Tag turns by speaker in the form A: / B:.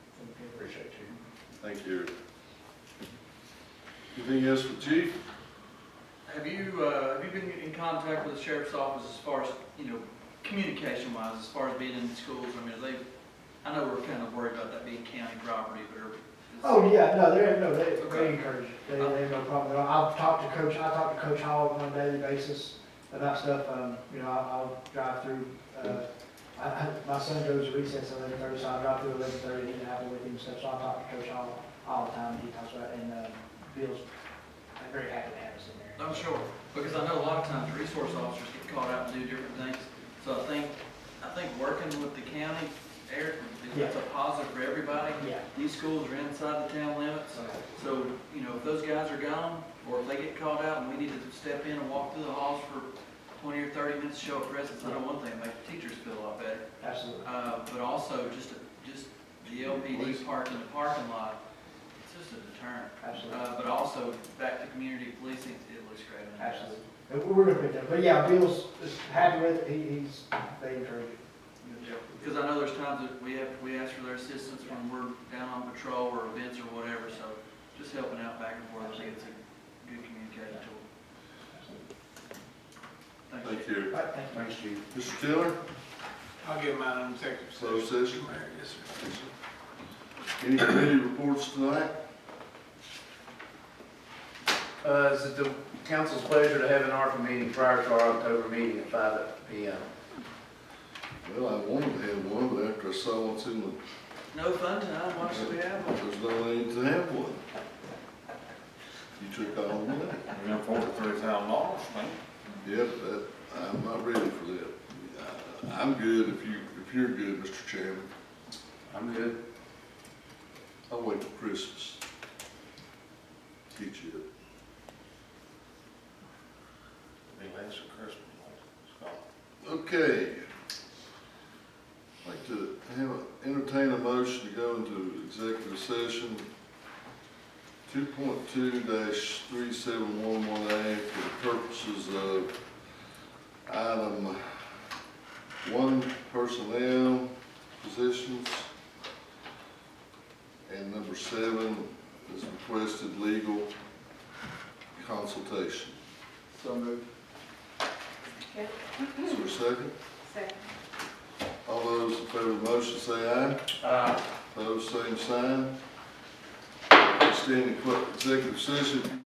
A: Thank you. Anything else for chief?
B: Have you, uh, have you been in contact with the sheriff's office as far as, you know, communication wise, as far as being in the schools? I mean, are they, I know we're kind of worried about that being county property, but are.
C: Oh, yeah, no, they're, no, they, they
B: Okay.
C: encourage, it. they, they have no problem at all. I've talked to Coach, I talk to Coach Hall on a daily basis about stuff, um, you know, I'll, I'll drive through, uh, I, I, my son goes to recess at eleven thirty, so I'll drive through eleven thirty, eat an apple with him, and stuff, so I talk to Coach Hall all the time, he talks about, it, and, uh, Bill's very happy to have us in there.
B: I'm sure, because I know a lot of times resource officers get called out and do different things. So I think, I think working with the county, Eric, is that's a positive for everybody.
C: Yeah.
B: These schools are inside the town limits, so, you know, if those guys are gone, or if they get called out and we need to step in and walk through the halls for twenty or thirty minutes, to show a presence, I know one thing, make the teachers feel a lot better.
C: Absolutely.
B: Uh, but also just, just the LPD park in the parking lot, it's just a deterrent.
C: Absolutely.
B: Uh, but also back to community policing, it looks great. on that.
C: Absolutely. And We're gonna put that, but yeah, Bill's is happy with it, he, he's, they encourage it.
B: Because I know there's times that we have, we ask for their assistance when we're down on patrol or events or whatever, so just helping out back and forth, I think it's a good communication tool. Thank you.
A: Thank you.
C: All right, thank you.
A: Thanks, chief. Mr. Tiller,
D: I'll give mine on executive
A: closed
D: session.
A: session.
D: Mayor, yes, sir.
A: Any committee reports tonight?
E: Uh, is it the council's pleasure to have an ARPA meeting prior to our October meeting at five P M?
A: Well, I wanted to have one, but after I saw what's in the,
B: No fun tonight, why should we have one?
A: there's no need to have one. You took all of that.
F: We're gonna forward it through town laws, man.
A: Yep, that, I'm not ready for that. I- I'm good if you, if you're good, Mr. Chairman.
E: I'm good.
A: I'll wait till Christmas. Get you up.
F: Be less than Christmas. So,
A: Okay. I'd Like to have, a- entertain a motion to go into executive session. Two point two three seven one one A for the purposes of item one personnel positions. And number seven is requested legal consultation.
B: So moved.
A: Is there a second?
G: Second.
A: All those in favor of the motion say aye.
E: Uh,
A: Those same sign. Standing executive session.